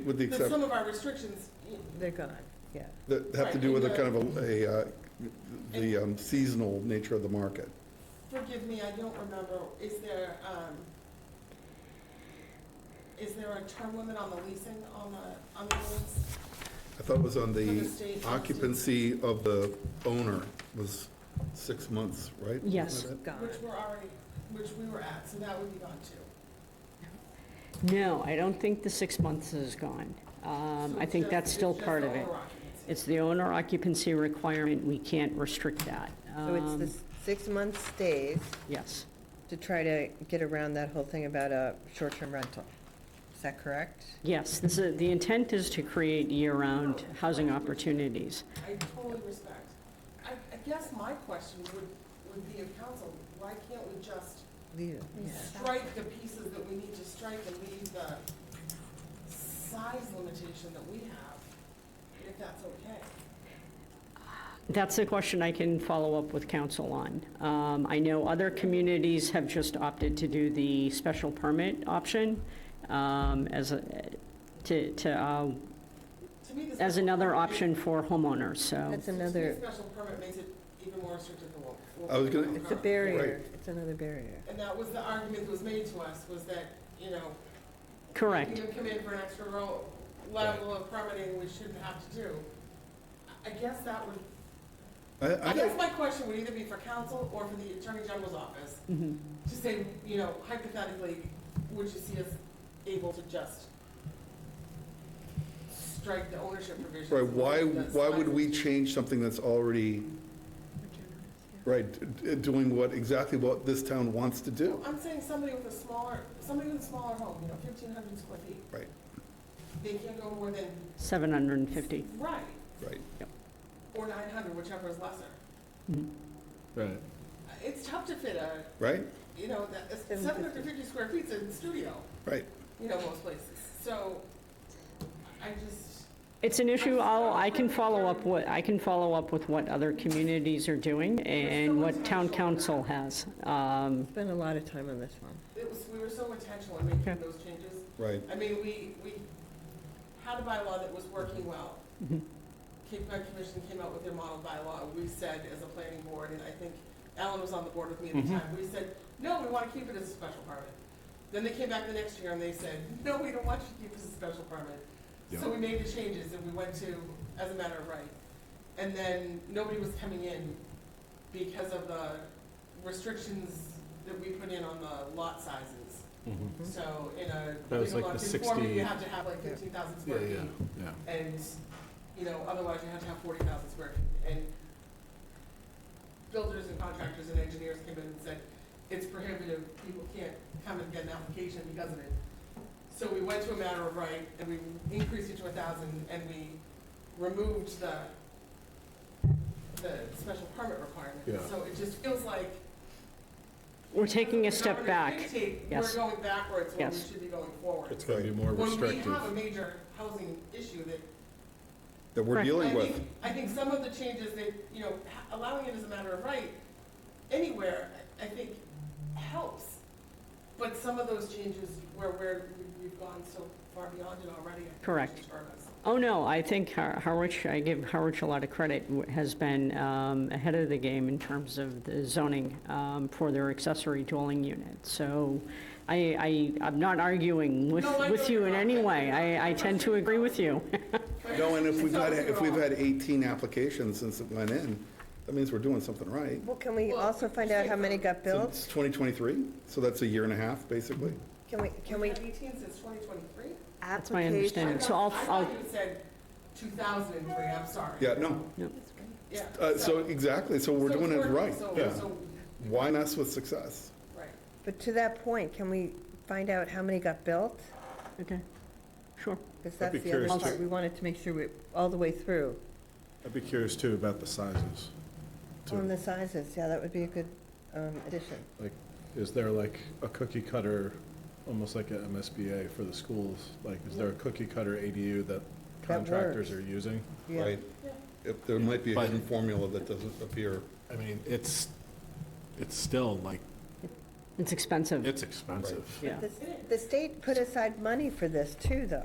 With the That some exception, of our restrictions, They're gone, yeah. that have to do with a kind of a, a, uh, the um, seasonal nature of the market. forgive me, I don't remember, is there, um, is there a term limit on the leasing on the, on the units? I thought it was on For the the state. occupancy of the owner was six months, right? Yes, Wasn't gone. Which we're already, which we were at, so that would be gone too. No, I don't think the six months is gone. Um, So I think just- that's still it's just part of the it. overoccupancy. It's the owner occupancy requirement, we can't restrict that. So it's the Um, s- six-month stays Yes, to try to get around that whole thing about a short-term rental. Is that correct? yes, this is, the intent is to create year-round housing opportunities. I totally respect. I, I guess my question would, would be of council, why can't we just Leave it. strike the pieces that we need to strike and leave the size limitation that we have, if that's okay? That's a question I can follow up with council on. Um, I know other communities have just opted to do the special permit option um, as a, to, to, uh, To me, this. as another option for homeowners, so. That's another, Special permit makes it even more restrictive than what. what I was gonna- we're it's a currently- barrier, it's another barrier. And that was the argument that was made to us, was that, you know, Correct. you can come in for an extra ro- level of permitting we shouldn't have to do. I I guess that would, it? I, I I guess think, my question would either be for council or for the attorney general's office. Mm-hmm. Mhm. to say, you know, hypothetically, would you see us able to just strike the ownership provision? right, why, why would we change something that's already, right, d- d- doing what, exactly what this town wants to do? I'm saying somebody with a smaller, somebody with a smaller home, you know, fifteen hundred square feet, Right, they can't go more than. 750. Right, right. or nine hundred, whichever is lesser. Right. It's tough to fit a, Right, you know, that, seven hundred and fifty square feet's a studio, right. you know, most places, so I just, It's an issue, I'll, I can follow up what, I can follow up with what other communities are doing and what town council has. Um, Spent a lot of time on this one. it was, we were so intentional in making Okay. those changes. Right, I mean, we, we had a bylaw that was working well. Mhm. Cape Cod Commission came out with their model bylaw. We said, as a planning board, and I think Alan was on the board with me at the time, we said, no, we want to keep it as a special permit. Then they came back the next year and they said, no, we don't want you to keep this as a special permit. So we made the changes and we went to, as a matter of right. And then nobody was coming in because of the restrictions that we put in on the lot sizes. Mm-hmm. Mm-hmm. So in a, That was legal like lot, the conforming, 60 you have to have like fifteen thousand Yeah, square feet. yeah, yeah. And, you know, otherwise you have to have forty thousand square feet. And builders and contractors and engineers came in and said, it's prohibitive, people can't come and get an application because of it. So we went to a matter of right, and we increased it to a thousand, and we removed the, the special permit requirement. Yeah. So it just feels like We're taking a step Government back. dictate We're Yes. going backwards when we Yes. should be going forward. It's gonna be more When we restrictive. have a major housing issue that, that we're Right. dealing I with. think, I think some of the changes that, you know, ha- allowing it as a matter of right anywhere, I I think helps. But some of those changes where we're, we've gone so far beyond it already. I think Correct. should burn us. Oh, no, I think Har- Harwich, I give Harwich a lot of credit, w- has been um, ahead of the game in terms of the zoning um, for their accessory dwelling unit. So I, I, I'm not arguing with, No, I know with you you're in not. any way. I, I tend to agree with you. But No, and if we've it's had, also if we've wrong. had 18 applications since it went in, that means we're doing something right. Well, can we Well, also find out how many got So built? It's 2023, so that's a year and a half, basically. Can we, can We've we? had eighteen since twenty twenty-three? That's my understanding. And so I'll- I thought you said two thousand and three, I'm sorry. Yeah, no, Yeah. uh, so exactly, so we're so doing it it's working, right, so- yeah. so- Why mess with success? Right. But to that point, can we find out how many got built? Okay, sure. Because I'd be that's the other curious part. We wanted to make sure we, all the way through. I'd be curious too about the sizes. too. On the sizes, yeah, that would be a good um, addition. Like, is there like a cookie cutter, almost like an MSBA for the schools? Like, is there a cookie cutter ADU that contractors works. are using? Yeah. If There might be a But- hidden formula that doesn't appear. I mean, it's, it's still like, It's expensive. it's expensive. Yeah. The- The state put aside money for this too, though.